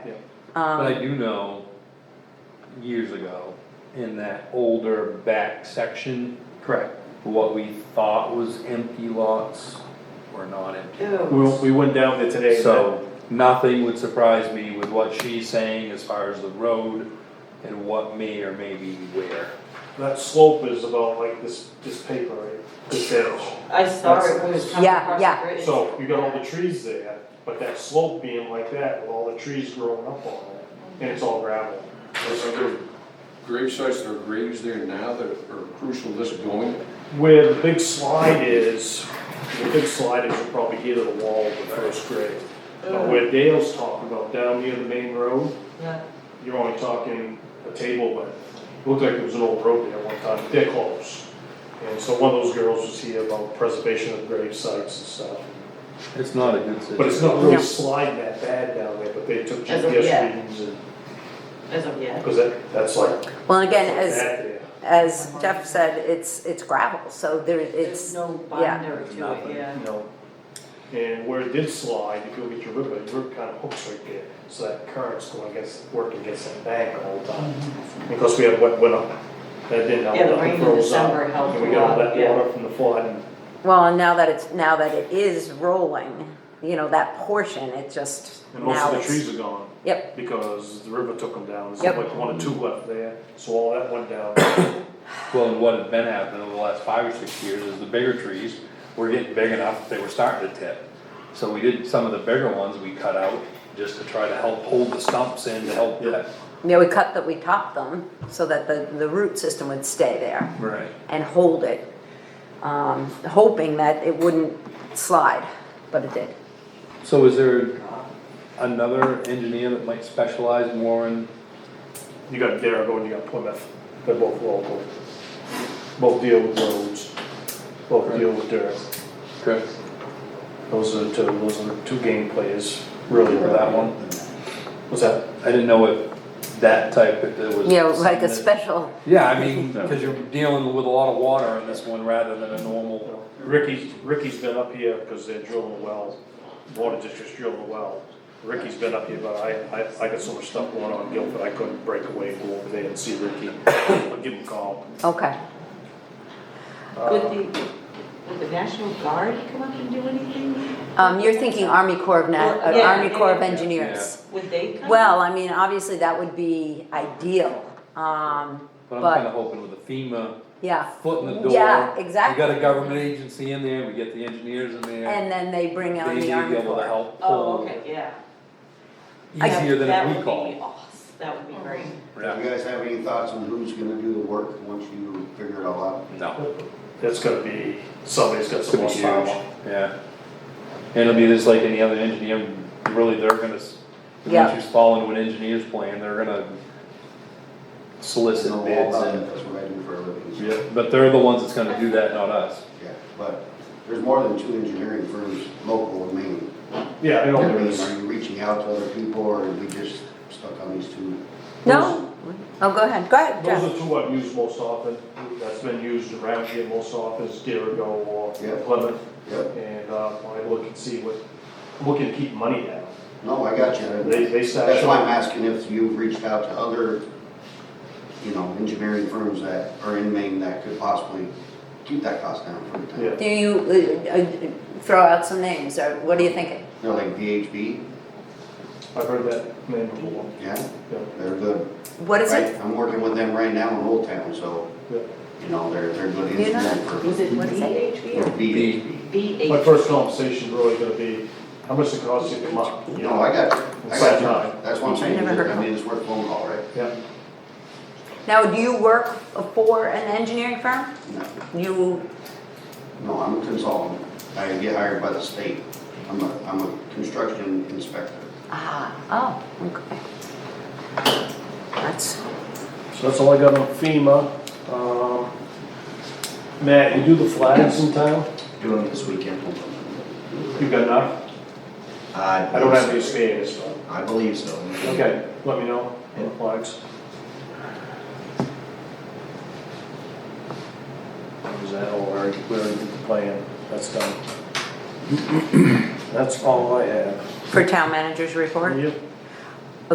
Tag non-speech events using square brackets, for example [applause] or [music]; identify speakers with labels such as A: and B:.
A: But I
B: Um,
A: do know, years ago, in that older back section,
C: Correct.
A: what we thought was empty lots were not empty.
C: We, we went down there today. and
A: So nothing would surprise me with what she's saying as far as the road and what may or may be where.
C: That that slope is about like this, this paper, right? This edge.
D: I saw it when it was coming
B: Yeah,
D: across
B: yeah.
D: the bridge.
C: So you got all the trees there, but that slope being like that with all the trees growing up on it, and it's all gravel. It's
E: Are there grave sites that are graves there now that are crucial to this going?
C: Where the big slide is, the big slide is you'll probably get to the wall of the first grade. But where Dale's talking about down near the main road,
D: Yeah.
C: you're only talking a table length. It Looked like it was an old road there one time, but they're close. And so one of those girls was here about preservation of grave sites and stuff.
A: It's not a good situation.
C: But it's not really
B: No.
C: sliding that bad down there, but they took
D: As of yet.
C: GPS readings and,
D: As of yet.
C: because that, that's like.
B: well, again, as,
C: that's like that there.
B: as Jeff said, it's, it's gravel, so there,
D: There's
B: it's,
D: no
B: yeah.
D: binder to it,
A: Nothing.
D: yeah.
C: No. And where it did slide, if you look at your river, your river kind of hooks right there, so that current's going against, working against that bank all the time. Because we had wet winter, that didn't help,
D: Yeah, the rain
C: nothing
D: in
C: froze up.
D: December helped
C: And we
D: a
C: got all
D: lot,
C: that
D: yeah.
C: water from the flood and
B: well, and now that it's, now that it is rolling, you know, that portion, it just,
C: And most
B: now
C: of the
B: it's,
C: trees are gone
B: yep,
C: because the river took them down. There's
B: Yep.
C: like one or two left there, so all that
B: [coughs]
C: went down.
A: Well, and what had been happening over the last five or six years is the bigger trees were getting big enough, that they were starting to tip. So we did, some of the bigger ones we cut out, just to try to help hold the stumps in to help that.
B: yeah, we cut that, we topped them, so that the, the root system would stay there
A: Right.
B: and hold it. Um, hoping that it wouldn't slide, but it did.
A: So is there another engineer that might specialize more in,
C: You got Darragou and you got Plymouth. They're both local. Both deal with roads. Both deal with dirt. Those are the two, those are the two game players really for that one. What's that?
A: I didn't know if that type, if there was.
B: You know, like
A: something
B: a
A: that-
B: special,
A: Yeah, I mean, cause you're dealing with a lot of water in this one rather than a normal.
C: Ricky's, Ricky's been up here because they're drilling a well, water district's drilling a well. Ricky's been up here, but I, I, I got so much stuff going on in Guilford, I couldn't break away, go over there and see Ricky. [coughs] I'll give him a call. Uh,
B: okay.
D: Would the, would the National Guard come up and do anything?
B: Um, you're thinking Army Corps of Na-
D: Well,
B: uh,
D: yeah,
B: Army Corps of
D: yeah, yeah.
B: Engineers.
D: Would they come?
B: Well, I mean, obviously that would be ideal, um,
A: But I'm
B: But-
A: kinda hoping with the FEMA
B: yeah.
A: foot in the door.
B: Yeah,
A: We
B: exactly.
A: got a government agency in there, we get the engineers in there.
B: And then they bring
A: They
B: on
A: need to
B: the
A: be
B: Army
A: able to
B: Corps.
A: help
D: Oh,
A: pull
D: okay, yeah.
A: easier than
D: That
A: a
D: would be
A: recall.
D: awes- That would be great.
F: Do you guys have any thoughts on who's gonna do the work once you figure it all out?
A: No.
C: That's gonna be, somebody's got
A: It's gonna
C: some
A: be huge,
C: horsepower.
A: yeah. And it'll be just like any other engineer, really, they're gonna, s-
B: Yeah.
A: once you fall into an engineer's plan, they're gonna
F: I
A: solicit
F: know all
A: bids
F: about it,
A: and,
F: That's what I do for a living. so-
A: yeah, but they're the ones that's gonna do that, not us.
F: Yeah, but there's more than two engineering firms local in Maine.
C: Yeah, I know
F: I
C: there
F: mean,
C: is.
F: Are you reaching out to other people or are we just stuck on these two?
B: No, oh, go ahead, go ahead,
C: Those
B: Jeff.
C: are two I've used most often, that's been used around here most often, is Dirigo or
F: Yeah.
C: Plymouth.
F: Yep,
C: And, uh, I look and see what, look and keep money down.
F: no, I got
C: They,
F: you.
C: they start
F: That's why I'm
C: showing.
F: asking if you've reached out to other, you know, engineering firms that are in Maine that could possibly keep that cost down for the town.
C: Yeah.
B: Do you, uh, uh, throw out some names, or what are you thinking?
F: You know, like VHB,
C: I've heard that name before.
F: yeah,
C: Yeah.
F: they're good.
B: What is
F: Right,
B: it?
F: I'm working with them right now in Old Town, so,
C: Yeah.
F: you know, they're, they're good
B: You're not-
F: instrument for
D: Was it
B: What is it?
D: BHB or
F: B.
C: My
D: BHB?
C: first conversation really gonna be, how much it costs you to come up? you
F: No,
C: know?
F: I got, I
C: Side
F: got,
C: nine.
F: you. that's what I'm saying,
B: I never heard of
F: I mean, it's worth a phone call, right?
C: Yeah,
B: Now, do you work for an engineering firm?
F: No,
B: You,
F: no, I'm a consultant, I get hired by the state, I'm a, I'm a construction inspector.
B: ah, oh, okay. That's,
C: so that's all I got on FEMA. Um, Matt, you do the flags in town?
F: Doing this weekend.
C: You got enough? I don't have any experience, but,
F: I believe so.
C: okay, let me know on the flags. Is that all, or we already did the plan, that's done. That's all I have.
B: for town manager's report?
C: Yep.